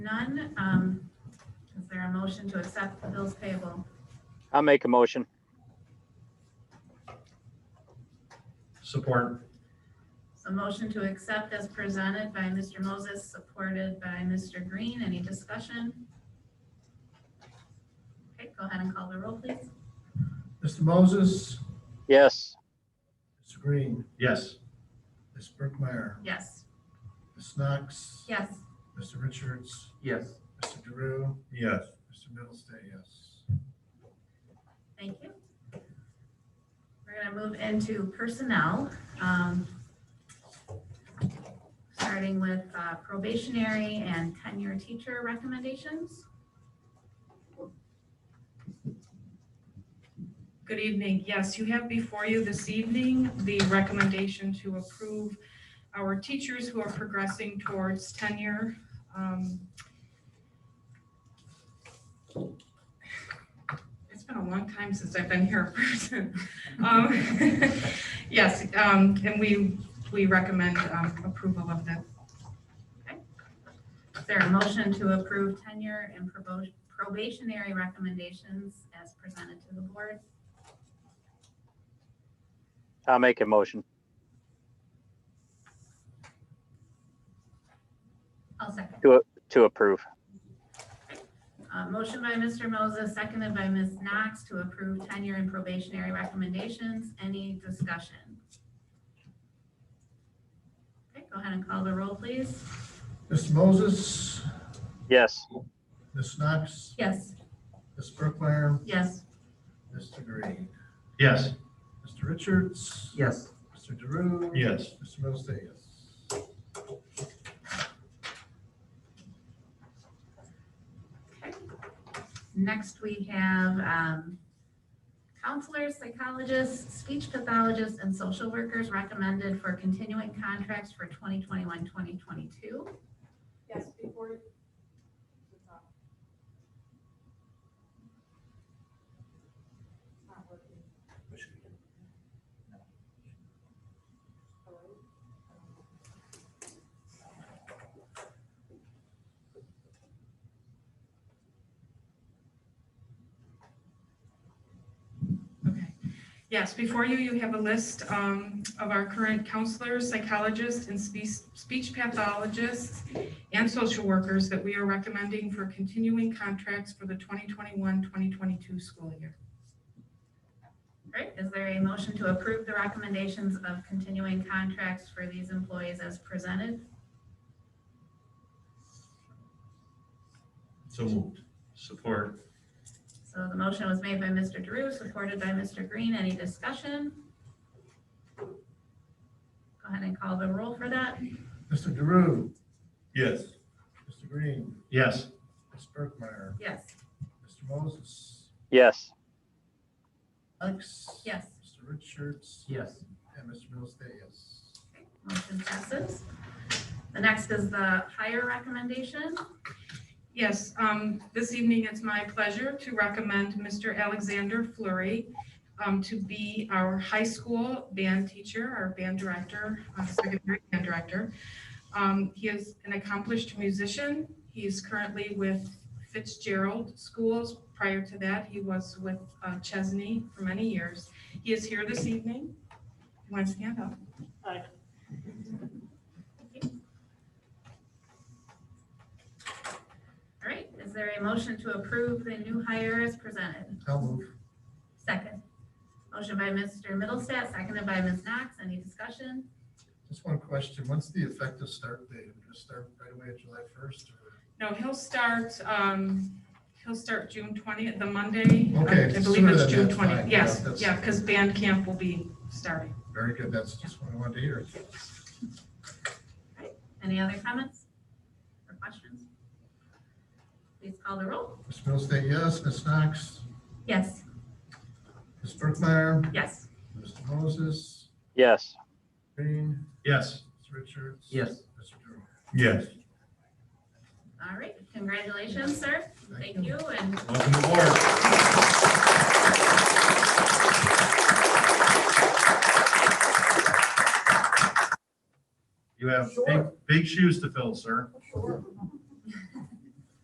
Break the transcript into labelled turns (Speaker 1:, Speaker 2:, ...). Speaker 1: None. Um, Is there a motion to accept the bills payable?
Speaker 2: I'll make a motion.
Speaker 3: Support.
Speaker 1: So motion to accept as presented by Mr. Moses, supported by Mr. Green. Any discussion? Okay, go ahead and call the roll, please.
Speaker 4: Mr. Moses,
Speaker 2: Yes.
Speaker 4: Mr. Green,
Speaker 3: Yes.
Speaker 4: Ms. Brookmeyer,
Speaker 1: Yes.
Speaker 4: Ms. Knox,
Speaker 1: Yes.
Speaker 4: Mr. Richards,
Speaker 3: Yes.
Speaker 4: Mr. Drew,
Speaker 3: Yes.
Speaker 4: Mr. Middlestate, yes.
Speaker 1: Thank you. We're gonna move into personnel. um, Starting with uh, probationary and tenure teacher recommendations.
Speaker 5: Good evening. Yes, you have before you this evening the recommendation to approve our teachers who are progressing towards tenure. Um, It's been a long time since I've been here in person. Um, Yes, um, and we, we recommend um, approval of that.
Speaker 1: Is there a motion to approve tenure and probo- probationary recommendations as presented to the board?
Speaker 2: I'll make a motion.
Speaker 1: I'll second.
Speaker 2: To approve.
Speaker 1: Uh, Motion by Mr. Moses, seconded by Ms. Knox to approve tenure and probationary recommendations. Any discussion? Okay, go ahead and call the roll, please.
Speaker 4: Mr. Moses,
Speaker 2: Yes.
Speaker 4: Ms. Knox,
Speaker 1: Yes.
Speaker 4: Ms. Brookmeyer,
Speaker 1: Yes.
Speaker 4: Mr. Green,
Speaker 3: Yes.
Speaker 4: Mr. Richards,
Speaker 3: Yes.
Speaker 4: Mr. Drew.
Speaker 3: Yes.
Speaker 4: Mr. Middlestate, yes.
Speaker 1: Next, we have um, counselors, psychologists, speech pathologists, and social workers recommended for continuing contracts for 2021, 2022.
Speaker 6: Yes, before. Not working. Hello?
Speaker 5: Okay. Yes, before you, you have a list um, of our current counselors, psychologists, and spe- speech pathologists and social workers that we are recommending for continuing contracts for the 2021-2022 school year.
Speaker 1: Great. Is there a motion to approve the recommendations of continuing contracts for these employees as presented?
Speaker 3: So moved. Support.
Speaker 1: So the motion was made by Mr. Drew, supported by Mr. Green. Any discussion? Go ahead and call the roll for that.
Speaker 4: Mr. Drew,
Speaker 3: Yes.
Speaker 4: Mr. Green,
Speaker 3: Yes.
Speaker 4: Ms. Brookmeyer,
Speaker 1: Yes.
Speaker 4: Mr. Moses,
Speaker 2: Yes.
Speaker 4: Knox.
Speaker 1: Yes.
Speaker 4: Mr. Richards,
Speaker 3: Yes.
Speaker 4: and Mr. Middlestate, yes.
Speaker 1: Motion passes. The next is the hire recommendation.
Speaker 5: Yes, um, this evening it's my pleasure to recommend Mr. Alexander Flurry um, to be our high school band teacher, our band director, uh, secondary band director. Um, he is an accomplished musician. He is currently with Fitzgerald Schools. Prior to that, he was with uh, Chesney for many years. He is here this evening. You Want to stand up?
Speaker 1: All right, is there a motion to approve the new hire as presented?
Speaker 4: I'll move.
Speaker 1: Second. Motion by Mr. Middlestat, seconded by Ms. Knox. Any discussion?
Speaker 4: Just one question. What's the effective start date? We're gonna start right away at July first or?
Speaker 5: No, he'll start, um, he'll start June twentieth, the Monday. uh,
Speaker 4: Okay,
Speaker 5: I believe
Speaker 4: sooner
Speaker 5: it's
Speaker 4: than
Speaker 5: June
Speaker 4: that's fine.
Speaker 5: twentieth. Yes,
Speaker 4: Yeah, that's-
Speaker 5: yeah, because band camp will be starting.
Speaker 4: Very good. That's just what I wanted to hear.
Speaker 1: Any other comments or questions? Please call the roll.
Speaker 4: Ms. Middlestate, yes. Ms. Knox,
Speaker 1: Yes.
Speaker 4: Ms. Brookmeyer,
Speaker 1: Yes.
Speaker 4: Mr. Moses,
Speaker 2: Yes.
Speaker 4: Green,
Speaker 3: Yes.
Speaker 4: Ms. Richards.
Speaker 3: Yes.
Speaker 4: Mr. Drew.
Speaker 3: Yes.
Speaker 1: All right, congratulations, sir. Thank you, and
Speaker 3: Welcome aboard. You have big, big shoes to fill, sir.
Speaker 6: Sure.